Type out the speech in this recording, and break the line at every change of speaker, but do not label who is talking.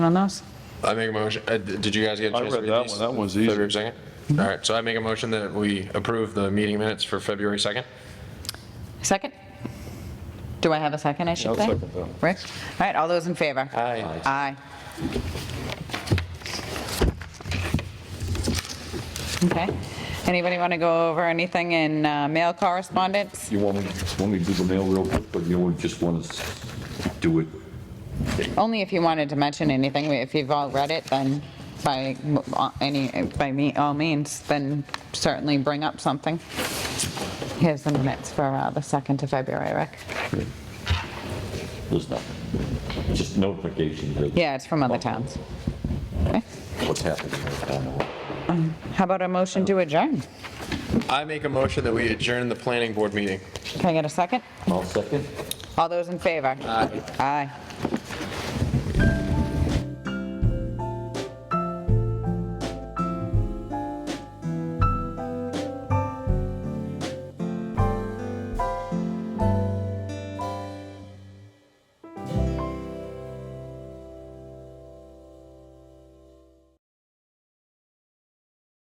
on those?
I make a motion, uh, d- did you guys get a
I
chance to
read
read
that
these?
one. That one's easy.
February 2nd? All right, so I make a motion that we approve the meeting minutes for February 2nd.
Second? Do I have a second, I should
I'll
say?
second that.
Rick? All right, all those in favor?
Aye.
Aye. Okay. Anybody want to go over anything in uh, mail correspondence?
You want me, want me to do the mail real quick, but you would just want to do it?
Only if you wanted to mention anything, if you've all read it, then by m- any, by me, all means, then certainly bring up something. Here's the minutes for uh, the 2nd of February, Rick.
There's nothing. Just notification of
Yeah, it's from other towns. Okay.
what's happening. I don't know.
How about a motion to adjourn?
I make a motion that we adjourn the planning board meeting.
Can I get a second?
I'll second.
Uh,
All those in favor? Aye. Aye.